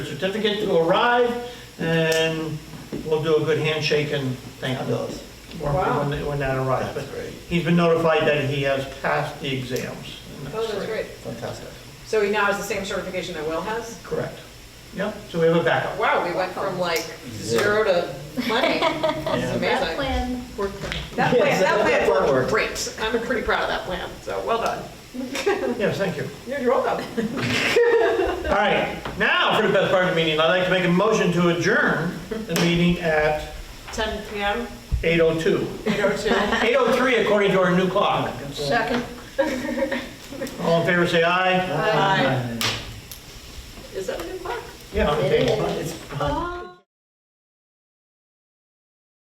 certificate to arrive, and we'll do a good handshake and thank the dollars. when- Wow. When when that arrives. But That's great. he's been notified that he has passed the exams. and Oh, that's great. Fantastic. So he now has the same certification that Will has? Correct. Yep, so we have a backup. Wow, we went from like zero to plenty. That's That amazing. plan worked out. That Yes, that- plan, that that plan plan worked. worked great. I'm pretty proud of that plan, so well done. Yes, thank you. You're welcome. All right, now for the best part of the meeting, I'd like to make a motion to adjourn the meeting at 10 PM, 8:02. 8:02. 8:03 according to our new clock. Second. All in favor, say aye. Aye. Is that a new clock? Yeah, okay. Oh.